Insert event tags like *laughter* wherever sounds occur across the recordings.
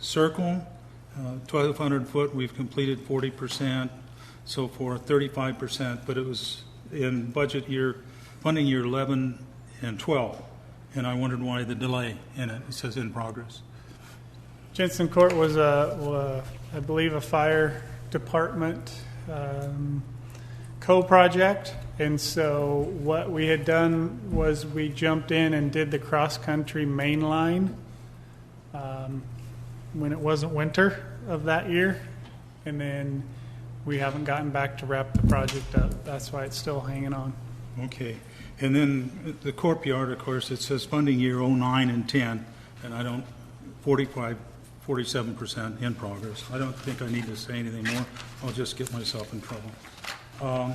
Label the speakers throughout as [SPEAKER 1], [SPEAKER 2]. [SPEAKER 1] circle, Uh, twelve hundred foot, we've completed forty percent, so forth, thirty-five percent, but it was in budget year, funding year eleven and twelve, and I wondered why the delay in it, it says in progress.
[SPEAKER 2] Jensen Court was a, wa- I believe, a fire department um, co-project, and so what we had done was we jumped in and did the cross-country main line um, when it wasn't winter of that year, and then we haven't gotten back to wrap the project up. That's why it's still hanging on.
[SPEAKER 1] Okay, and then the courtyard, of course, it says funding year oh nine and ten, and I don't, forty-five, forty-seven percent in progress. I don't think I need to say anything more, I'll just get myself in trouble. Um,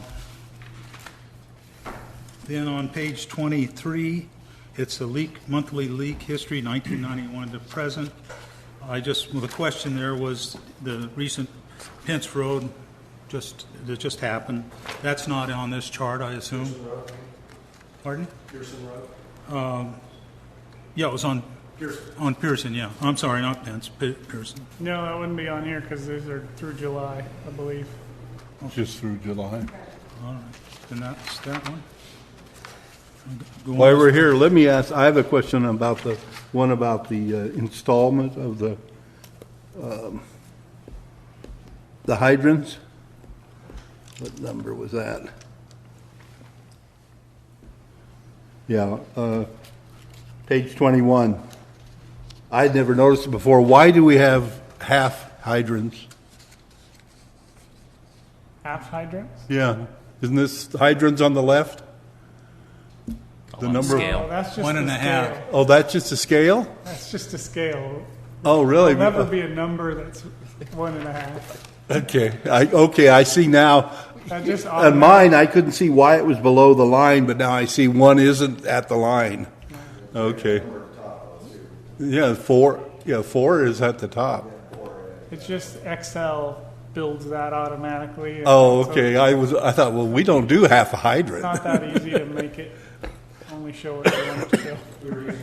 [SPEAKER 1] Then on page twenty-three, it's the leak, monthly leak history nineteen ninety-one to present. I just, well, the question there was the recent Pence Road just, that just happened. That's not on this chart, I assume? Pardon? Um,
[SPEAKER 3] Pearson Road?
[SPEAKER 1] Yeah, it was on, on Pearson, yeah. I'm sorry, not Pence, Pe- Pearson.
[SPEAKER 2] No, that wouldn't be on here because these are through July, I believe.
[SPEAKER 4] Just through July.
[SPEAKER 1] All right, then that's that one. Go on.
[SPEAKER 4] While we're here, let me ask, I have a question about the, one about the uh, installment of the, um, the hydrants. What number was that? Yeah, uh, page 21. I'd never noticed it before. Why do we have half hydrants?
[SPEAKER 2] Half hydrants?
[SPEAKER 4] Yeah, isn't this hydrants on the left? The
[SPEAKER 5] on
[SPEAKER 4] number, of-
[SPEAKER 5] scale.
[SPEAKER 2] Oh, that's just
[SPEAKER 1] One and
[SPEAKER 2] the
[SPEAKER 1] a half.
[SPEAKER 2] scale.
[SPEAKER 4] oh, that's just a scale?
[SPEAKER 2] That's just a scale.
[SPEAKER 4] Oh, really?
[SPEAKER 2] There'll never be a number that's one and a half.
[SPEAKER 4] Okay, I, okay, I see now.
[SPEAKER 2] That
[SPEAKER 4] *laughs*
[SPEAKER 2] just
[SPEAKER 4] On mine, I couldn't see why it was below the line, but now I see one isn't at the line. Okay. Yeah, four, yeah, four is at the top.
[SPEAKER 2] It's just Excel builds that automatically. and
[SPEAKER 4] Oh,
[SPEAKER 2] so
[SPEAKER 4] okay, I was, I thought, well, we don't do half a
[SPEAKER 2] It's
[SPEAKER 4] hydrant.
[SPEAKER 2] not that easy
[SPEAKER 4] *laughs*
[SPEAKER 2] to make it only show what you want it to show.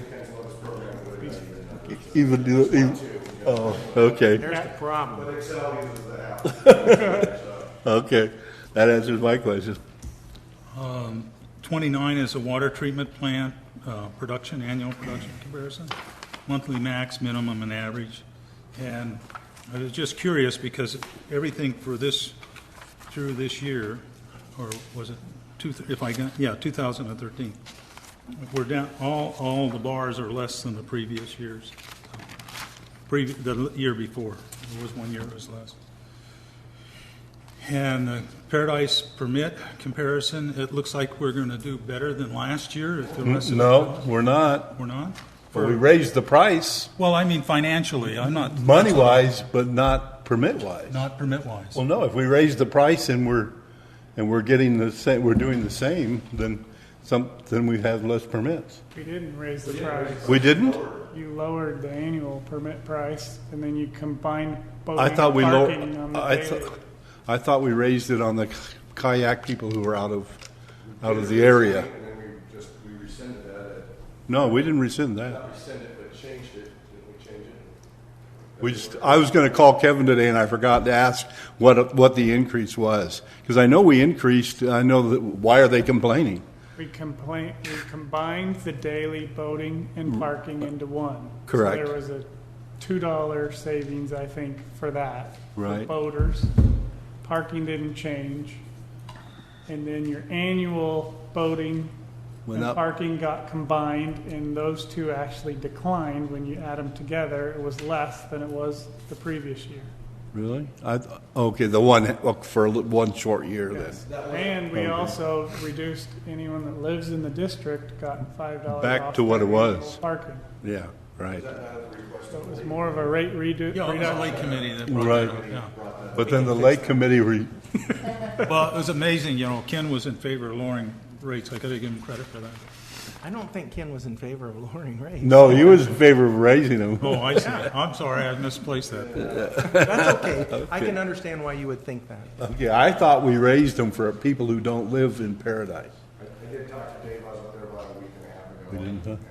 [SPEAKER 4] Even do, even, oh, okay,
[SPEAKER 5] Here's the problem.
[SPEAKER 4] *laughs* okay. That answers my question.
[SPEAKER 1] 29 is a water treatment plant, uh, production, annual production comparison, monthly max, minimum, and average. And I was just curious because everything for this, through this year, or was it, two? if I got, yeah, 2013, we're down, all, all the bars are less than the previous years, previ- the year before. There was one year it was less. And the Paradise permit comparison, it looks like we're going to do better than last year if the rest of
[SPEAKER 4] No, we're not.
[SPEAKER 1] We're not?
[SPEAKER 4] We raised the price,
[SPEAKER 1] Well, I mean financially, I'm not,
[SPEAKER 4] money-wise, but not permit-wise.
[SPEAKER 1] not permit-wise.
[SPEAKER 4] Well, no, if we raise the price and we're, and we're getting the same, we're doing the same, then some, then we have less permits.
[SPEAKER 2] We didn't raise the price.
[SPEAKER 4] We didn't?
[SPEAKER 2] You lowered the annual permit price and then you combined boating
[SPEAKER 4] I
[SPEAKER 2] and
[SPEAKER 4] thought we
[SPEAKER 2] parking
[SPEAKER 4] lowered,
[SPEAKER 2] on the
[SPEAKER 4] I
[SPEAKER 2] daily.
[SPEAKER 4] thought, I thought we raised it on the kayak people who were out of, out of the area.
[SPEAKER 3] And then we just, we rescinded that,
[SPEAKER 4] No, we didn't rescind that.
[SPEAKER 3] not rescinded, but changed it, didn't we change it?
[SPEAKER 4] We just, I was gonna call Kevin today and I forgot to ask what, what the increase was. Cause I know we increased, I know that, why are they complaining?
[SPEAKER 2] We complain, we combined the daily boating and parking into one. So
[SPEAKER 4] Mm. Correct.
[SPEAKER 2] There was a two dollar savings, I think, for that. for
[SPEAKER 4] Right.
[SPEAKER 2] Boaters, parking didn't change. And then your annual boating
[SPEAKER 4] Went
[SPEAKER 2] and
[SPEAKER 4] up.
[SPEAKER 2] parking got combined and those two actually declined when you add them together. It was less than it was the previous year.
[SPEAKER 4] Really? I, th- okay, the one, well, for a li- one short year then.
[SPEAKER 2] And we also reduced anyone that lives in the district got five dollars
[SPEAKER 4] Back
[SPEAKER 2] off
[SPEAKER 4] to what
[SPEAKER 2] their
[SPEAKER 4] it was.
[SPEAKER 2] annual Parking.
[SPEAKER 4] Yeah, right.
[SPEAKER 2] So it was more of a rate redo.
[SPEAKER 1] Yeah, it was the
[SPEAKER 2] reduction.
[SPEAKER 1] lake committee that brought that up,
[SPEAKER 4] Right.
[SPEAKER 1] yeah.
[SPEAKER 4] But then the lake committee, re-
[SPEAKER 1] Well, it was amazing, you know, Ken was in favor of lowering rates, I gotta give him credit for that.
[SPEAKER 5] I don't think Ken was in favor of *laughs* lowering rates.
[SPEAKER 4] no, he was in favor of raising *laughs* them.
[SPEAKER 1] Oh, I see, I'm sorry, I misplaced that.
[SPEAKER 5] That's okay. I can understand why you would think that.
[SPEAKER 4] Okay, I thought we raised them for people who don't live in paradise.
[SPEAKER 3] I did talk to Dave, I was up there about a week and a half ago.
[SPEAKER 4] didn't, huh?
[SPEAKER 3] And uh,